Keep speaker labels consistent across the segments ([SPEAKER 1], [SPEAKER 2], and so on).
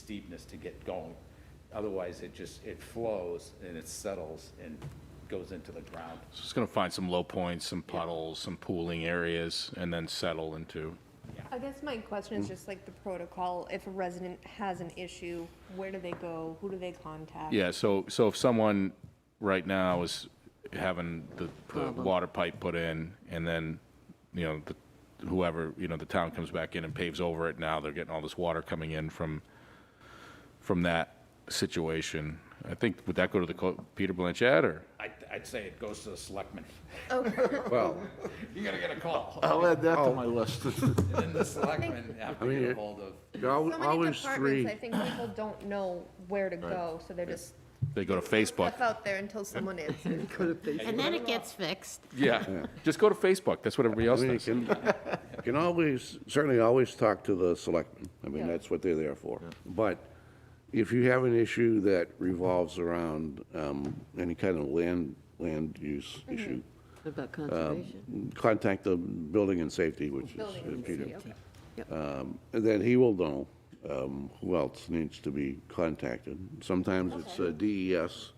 [SPEAKER 1] steepness to get going. Otherwise, it just, it flows and it settles and goes into the ground.
[SPEAKER 2] So it's going to find some low points, some puddles, some pooling areas, and then settle into,
[SPEAKER 3] I guess my question
[SPEAKER 4] Mm.
[SPEAKER 3] is just like the protocol, if a resident has an issue, where do they go, who do they contact?
[SPEAKER 2] yeah, so, so if someone right now is having the, the water pipe put in, and then, you know, the- whoever, you know, the town comes back in and paves over it, now they're getting all this water coming in from, from that situation. I think, would that go to the, co- Peter Blanchett, or?
[SPEAKER 1] I'd, I'd say it goes to the selectmen.
[SPEAKER 5] Well,
[SPEAKER 1] You're gonna get a call.
[SPEAKER 5] I'll add
[SPEAKER 4] Oh.
[SPEAKER 5] that to my list.
[SPEAKER 1] And then the selectmen have to get
[SPEAKER 5] it-
[SPEAKER 1] ahold of,
[SPEAKER 3] So many
[SPEAKER 5] Always
[SPEAKER 3] departments,
[SPEAKER 5] three.
[SPEAKER 3] I think people don't know where to go, so they're just
[SPEAKER 2] They go to Facebook.
[SPEAKER 3] left out there until someone answers.
[SPEAKER 6] And then it gets fixed.
[SPEAKER 2] Yeah, just go to Facebook, that's what everybody else
[SPEAKER 4] I mean, you
[SPEAKER 2] does.
[SPEAKER 4] can, you can always, certainly always talk to the selectmen. I mean, that's what they're there for. But if you have an issue that revolves around um, any kind of land, land use
[SPEAKER 3] Mm-hmm.
[SPEAKER 4] issue,
[SPEAKER 6] What about conservation?
[SPEAKER 4] contact the building and safety, which is uh,
[SPEAKER 3] Building and
[SPEAKER 4] Peter.
[SPEAKER 6] Safety.
[SPEAKER 4] Um, and Then he will know um, who else needs to be contacted. Sometimes it's uh, DES,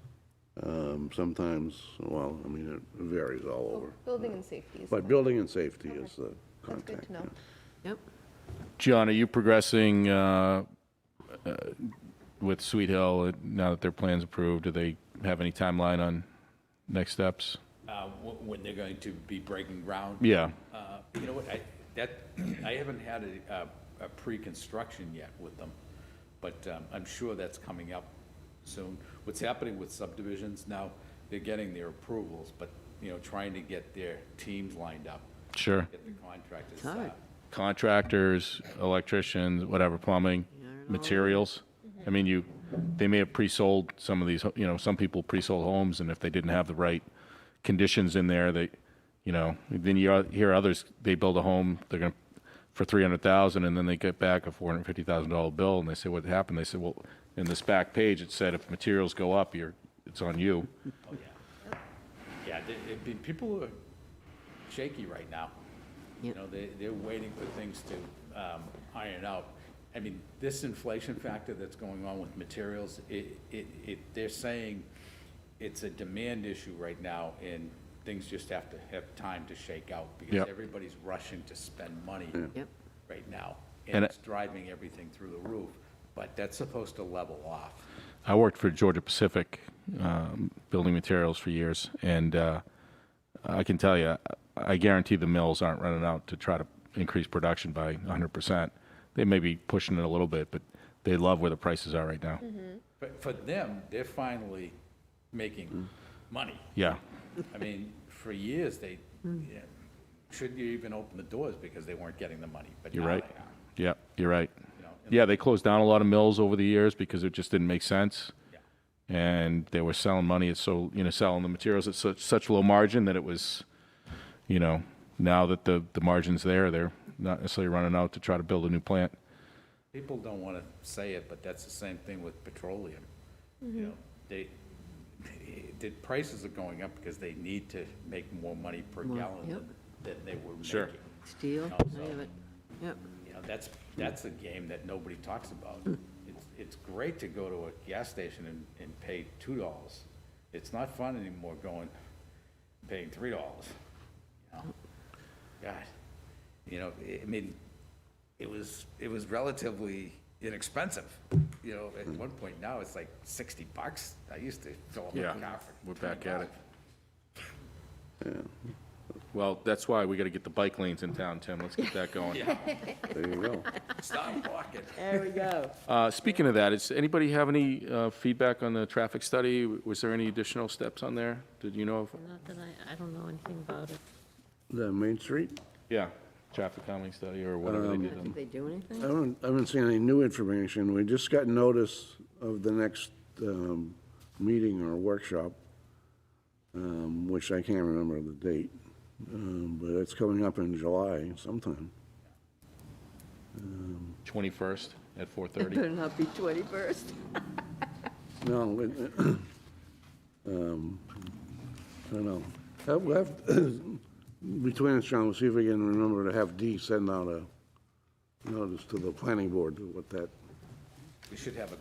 [SPEAKER 4] um, sometimes, well, I mean, it varies
[SPEAKER 3] Oh.
[SPEAKER 4] all over.
[SPEAKER 3] Building and safety is,
[SPEAKER 4] But building and safety is the
[SPEAKER 3] that's good
[SPEAKER 4] contact.
[SPEAKER 3] to know.
[SPEAKER 6] Yep.
[SPEAKER 2] John, are you progressing uh, uh, with Sweet Hill uh, now that their plan's approved? Do they have any timeline on next steps?
[SPEAKER 1] uh, wh- when they're going to be breaking ground.
[SPEAKER 2] Yeah.
[SPEAKER 1] Uh, You know what, I, that, I haven't had a, a- a pre-construction yet with them, but um, I'm sure that's coming up soon. What's happening with subdivisions now, they're getting their approvals, but, you know, trying to get their teams lined up,
[SPEAKER 2] Sure.
[SPEAKER 1] get the contractors.
[SPEAKER 6] hard.
[SPEAKER 1] uh,
[SPEAKER 2] Contractors, electricians, whatever, plumbing, materials. I mean, you, they may have pre-sold some of these, you know, some people pre-sold homes, and if they didn't have the right conditions in there, they, you know, then you hear others, they build a home, they're going to, for 300,000, and then they get back a $450,000 bill, and they say, what happened? They said, well, in this back page, it said if materials go up, you're, it's on you.
[SPEAKER 1] Oh, yeah. Yeah, they- it'd be- people are shaky right now. You
[SPEAKER 6] Yep.
[SPEAKER 1] know, they, they're waiting for things to um, iron out. I mean, this inflation factor that's going on with materials, it, it, it, they're saying it's a demand issue right now, and things just have to have time to shake out, because
[SPEAKER 2] Yep.
[SPEAKER 1] everybody's rushing to spend money
[SPEAKER 6] Yep.
[SPEAKER 1] right now,
[SPEAKER 2] And
[SPEAKER 1] and
[SPEAKER 2] it-
[SPEAKER 1] it's driving everything through the roof, but that's supposed to level off.
[SPEAKER 2] I worked for Georgia Pacific um, Building Materials for years, and uh, I can tell you, I guarantee the mills aren't running out to try to increase production by 100%. They may be pushing it a little bit, but they love where the prices are right now.
[SPEAKER 1] But for them, they're finally
[SPEAKER 2] Mm.
[SPEAKER 1] making money.
[SPEAKER 2] Yeah.
[SPEAKER 1] I mean, for years, they,
[SPEAKER 6] Mm.
[SPEAKER 1] yeah, shouldn't you even open the doors because they weren't getting the money, but
[SPEAKER 2] You're
[SPEAKER 1] now
[SPEAKER 2] right.
[SPEAKER 1] they are.
[SPEAKER 2] Yeah, you're right.
[SPEAKER 1] You know, and-
[SPEAKER 2] Yeah, they closed down a lot of mills over the years because it just didn't make sense.
[SPEAKER 1] Yeah.
[SPEAKER 2] And they were selling money at so, you know, selling the materials at such, such low margin that it was, you know, now that the, the margin's there, they're not necessarily running out to try to build a new plant.
[SPEAKER 1] People don't want to say it, but that's the same thing with petroleum.
[SPEAKER 6] Mm-hmm.
[SPEAKER 1] You know, they, the prices are going up because they need to make more money per
[SPEAKER 6] More,
[SPEAKER 1] gallon
[SPEAKER 6] yep.
[SPEAKER 1] than, than they were making.
[SPEAKER 2] Sure.
[SPEAKER 6] Steel,
[SPEAKER 1] Also-
[SPEAKER 6] I have it. Yep.
[SPEAKER 1] You know, that's, that's a game that nobody talks about.
[SPEAKER 2] Hmm.
[SPEAKER 1] It's, it's great to go to a gas station and, and pay two dollars. It's not fun anymore going, paying three dollars. God, you know, I- I mean, it was, it was relatively inexpensive, you know, at
[SPEAKER 2] Hmm.
[SPEAKER 1] one point now it's like sixty bucks. I used to fill up my
[SPEAKER 2] Yeah,
[SPEAKER 1] car for.
[SPEAKER 2] we're back at it.
[SPEAKER 1] $20.
[SPEAKER 2] Well, that's why we got to get the bike lanes in town, Tim. Let's get that going.
[SPEAKER 4] There you go.
[SPEAKER 1] Stop walking.
[SPEAKER 6] There we go.
[SPEAKER 2] Uh, Speaking of that, does anybody have any uh, feedback on the traffic study? Was there any additional steps on there? Did you know of?
[SPEAKER 6] Not that I, I don't know anything about it.
[SPEAKER 4] The Main Street?
[SPEAKER 2] Yeah, traffic calming study or whatever they
[SPEAKER 6] I
[SPEAKER 2] did.
[SPEAKER 6] don't think they do
[SPEAKER 4] I
[SPEAKER 6] anything.
[SPEAKER 4] haven't, I haven't seen any new information. We just got notice of the next um, meeting or workshop, um, which I can't remember the date, um, but it's coming up in July sometime.
[SPEAKER 2] 21st at
[SPEAKER 6] It
[SPEAKER 2] 4:30.
[SPEAKER 6] better not be 21st.
[SPEAKER 4] No, it- um, I don't know. Have- We'll have, between us, John, we'll see if we can remember to have D send out a notice to the planning board, what that
[SPEAKER 1] we should have a